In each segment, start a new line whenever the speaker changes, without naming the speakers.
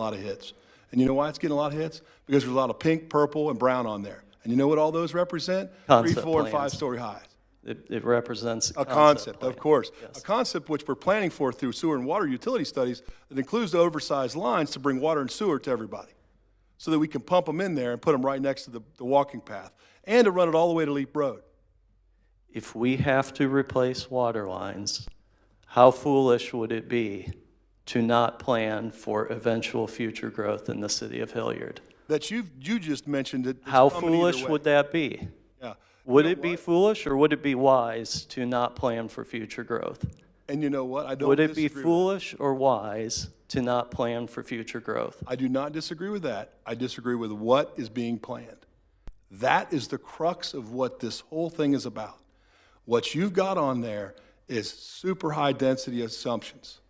a lot of hits. And you know why it's getting a lot of hits? Because there's a lot of pink, purple, and brown on there. And you know what all those represent? Three,
Concept
four, and
plans.
five-story highs.
It, it represents.
A concept, of
plan.
course. A
Yes.
concept which we're planning for through sewer and water utility studies that includes the oversized lines to bring water and sewer to everybody. So that we can pump them in there and put them right next to the, the walking path and to run it all the way to Leap Road.
If we have to replace water lines, how foolish would it be to not plan for eventual future growth in the city of Hilliard?
That you, you just mentioned that. it's
How
coming either
foolish
way.
would that be?
Yeah.
Would it be foolish or would it be wise to not plan for future growth?
And you know what? I don't
Would it be
disagree with-
foolish or wise to not plan for future growth?
I do not disagree with that. I disagree with what is being planned. That is the crux of what this whole thing is about. What you've got on there is super high density assumptions.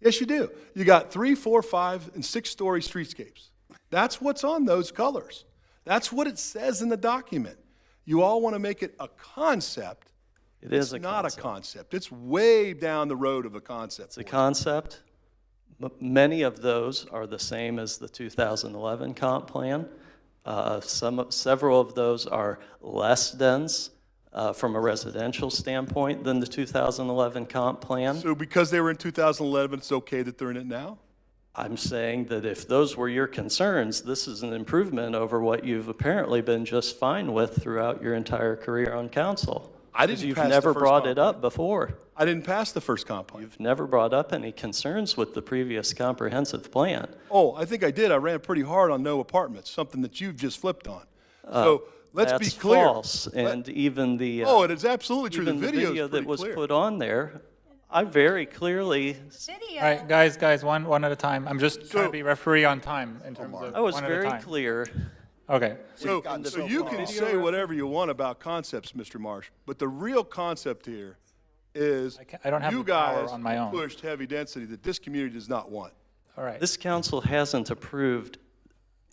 Yes, you do. You got three, four, five, and six story streetscapes. That's what's on those colors. That's what it says in the document. You all want to make it a concept.
It is a
It's not
concept.
a concept. It's way down the road of a concept.
It's a concept. M- Many of those are the same as the 2011 comp plan. Uh, Some, of- several of those are less dense uh, from a residential standpoint than the 2011 comp plan.
So because they were in 2011, it's okay that they're in it now?
I'm saying that if those were your concerns, this is an improvement over what you've apparently been just fine with throughout your entire career on council.
I didn't
'Cause you've
pass the
never
first
brought
comp
it up before.
I didn't pass the first comp plan.
You've never brought up any concerns with the previous comprehensive plan.
Oh, I think I did. I ran pretty hard on no apartments, something that you've just flipped on. So let's be
Uh, That's
clear.
false, and even the. uh,
Oh, it is absolutely true. The
even
video is
that
pretty
was
clear.
put on there, I very clearly,
video.
All right, guys, guys, one, one at a time. I'm just trying
So-
to be referee on time in terms of
I was
one at a
very
time.
clear.
Okay.
So, so you can say whatever you want about concepts, Mr. Marsh, but the real concept here is
can't- I don't have
you
the power
guys
on my own.
pushed heavy density that this community does not want.
All right.
This council hasn't approved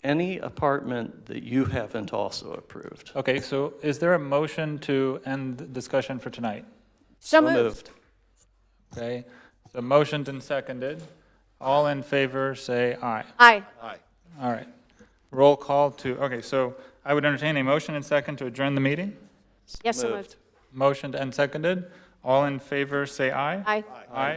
any apartment that you haven't also approved.
Okay, so is there a motion to end discussion for tonight?
So
So
moved.
Okay, so motioned and seconded. All in favor, say aye.
Aye.
Aye.
All right. Roll call to, okay, so I would entertain a motion and second to adjourn the meeting.
Yes, so
Moved.
moved.
Motioned and seconded. All in favor, say aye.
Aye.
Aye.